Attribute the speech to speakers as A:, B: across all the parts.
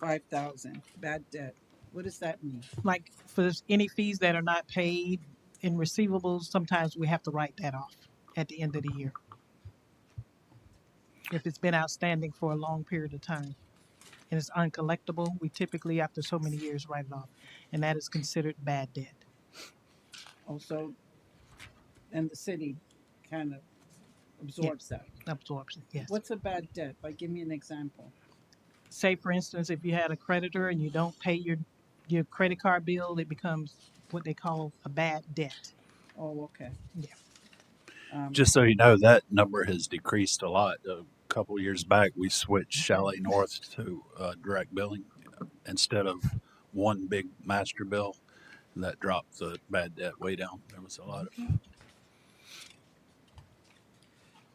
A: five thousand, bad debt. What does that mean?
B: Like for s- any fees that are not paid in receivables, sometimes we have to write that off at the end of the year. If it's been outstanding for a long period of time and it's uncollectible, we typically, after so many years, write it off. And that is considered bad debt.
A: Also, and the city kind of absorbs that.
B: Absorption, yes.
A: What's a bad debt? Like, give me an example.
B: say for instance if you had a creditor and you don't pay your your credit card bill it becomes what they call a bad debt
A: Oh, okay.
B: Yeah.
A: Um,
C: Just so you know, that number has decreased a lot. A couple years back, we switched Chalet North to uh, direct billing instead of one big master bill. That dropped the bad debt way down. There was a lot of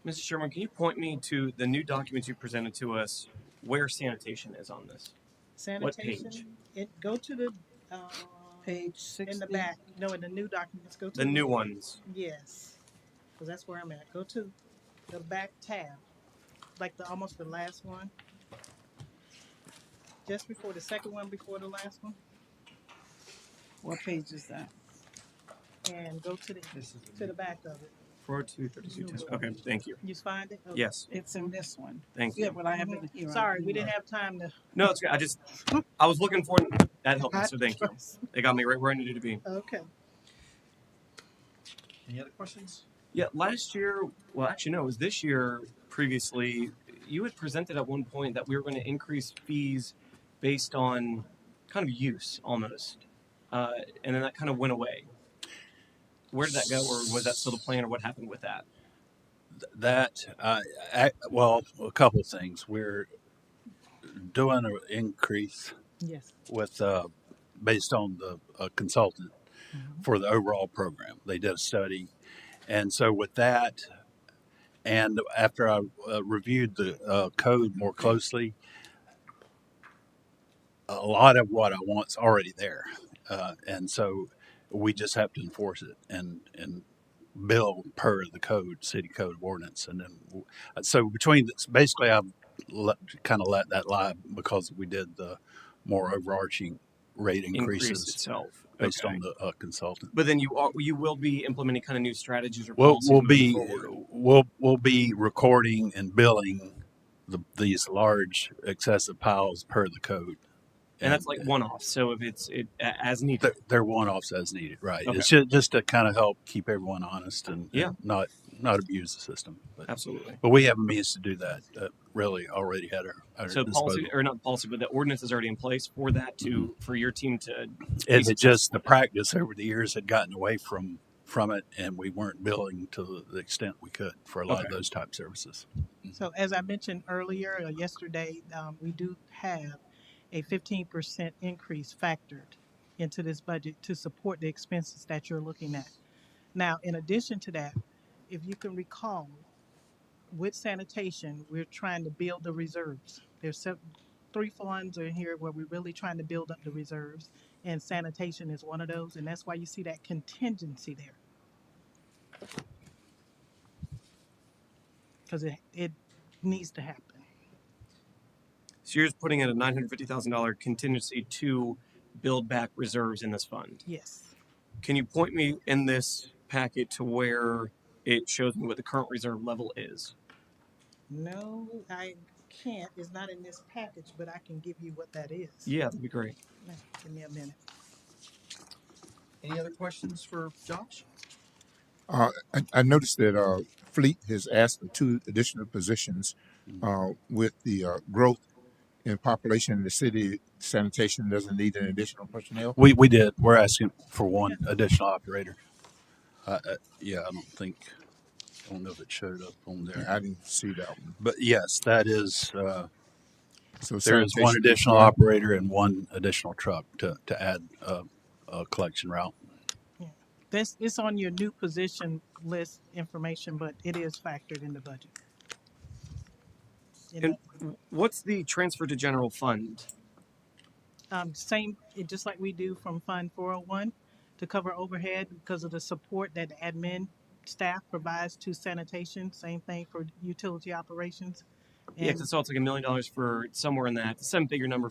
D: Mr. Sherman, can you point me to the new documents you presented to us where sanitation is on this? What page?
B: sanitation it go to the uh,
A: Page
B: in
A: sixty.
B: the back no in the new documents go to
D: The new ones.
B: yes because that's where i'm at go to the back tab like the almost the last one just before the second one before the last one
A: What page is that?
B: and go to the
D: This is
B: to the back of it
D: Four two thirty-two ten. Okay, thank you.
B: you find it Okay.
D: Yes,
A: It's in this one.
D: thank
A: Yeah,
D: you.
A: but I have it here.
B: sorry we didn't have time to
D: No, it's good. I just, I was looking for, that helped me, so thank you. It got me right where I needed to be.
B: okay
E: Any other questions?
D: Yeah, last year, well, actually, no, it was this year previously. You had presented at one point that we were going to increase fees based on kind of use almost. Uh, and then that kind of went away. Where did that go, or was that still the plan, or what happened with that?
C: that. Uh, I, well, a couple things. We're doing an increase
B: yes
C: with uh, based on the uh, consultant
B: Mhm.
C: for the overall program. They did a study, and so with that, and after I uh, reviewed the uh, code more closely, a lot of what I want's already there, uh, and so we just have to enforce it and and bill per the code, city code of ordinance, and then uh, so between this, basically I've let, kind of let that lie because we did the more overarching rate increases
D: Increase itself.
C: based
D: Okay.
C: on the uh, consultant.
D: But then you are, you will be implementing kind of new strategies or
C: We'll
D: policies
C: we'll
D: moving
C: be
D: forward.
C: we'll we'll be recording and billing the, these large excessive piles per the code,
D: and that's like one off. So if it's it a- as needed,
C: they're, they're one offs as needed, right?
D: Okay.
C: It's just, just to kind of help keep everyone honest and, and
D: Yeah.
C: not not abuse the system. But,
D: absolutely.
C: but we have a means to do that. Uh, really, already had our, our
D: So
C: disposal.
D: policy or not policy, but the ordinance is already in place for that to
C: Mm-hmm.
D: for your team to
C: and it just the practice over the years had gotten away from from it, and we weren't billing to the extent we could for a lot of
D: Okay.
C: those type services.
B: So as I mentioned earlier, or yesterday, um, we do have a fifteen percent increase factored into this budget to support the expenses that you're looking at. Now, in addition to that, if you can recall, with sanitation, we're trying to build the reserves. There's sev- three funds in here where we're really trying to build up the reserves, and sanitation is one of those, and that's why you see that contingency there. Because it, it needs to happen.
D: So you're just putting in a nine hundred fifty thousand dollar contingency to build back reserves in this fund.
B: Yes.
D: Can you point me in this packet to where it shows me what the current reserve level is?
B: No, I can't. It's not in this package, but I can give you what that is.
D: Yeah, that'd be great.
B: Now, Give me a minute.
E: Any other questions for Josh?
F: Uh, I, I noticed that uh, Fleet has asked for two additional positions
C: Mm-hmm.
F: uh, with the uh, growth in population in the city. Sanitation doesn't need an additional personnel.
C: We we did. We're asking for one additional operator. Uh, uh, yeah, I don't think. I don't know if it showed up on there,
F: I didn't see that one.
C: but yes, that is. Uh,
F: So
C: there is one
F: sanitation-
C: additional operator and one additional truck to to add uh, a collection route.
B: This it's on your new position list information, but it is factored in the budget. In
D: And what's the transfer to general fund?
B: the- um, same, it, just like we do from Fund 401 to cover overhead because of the support that the admin staff provides to sanitation. Same thing for utility operations.
D: Yeah, 'cause I saw it's like a million dollars for somewhere in that seven figure number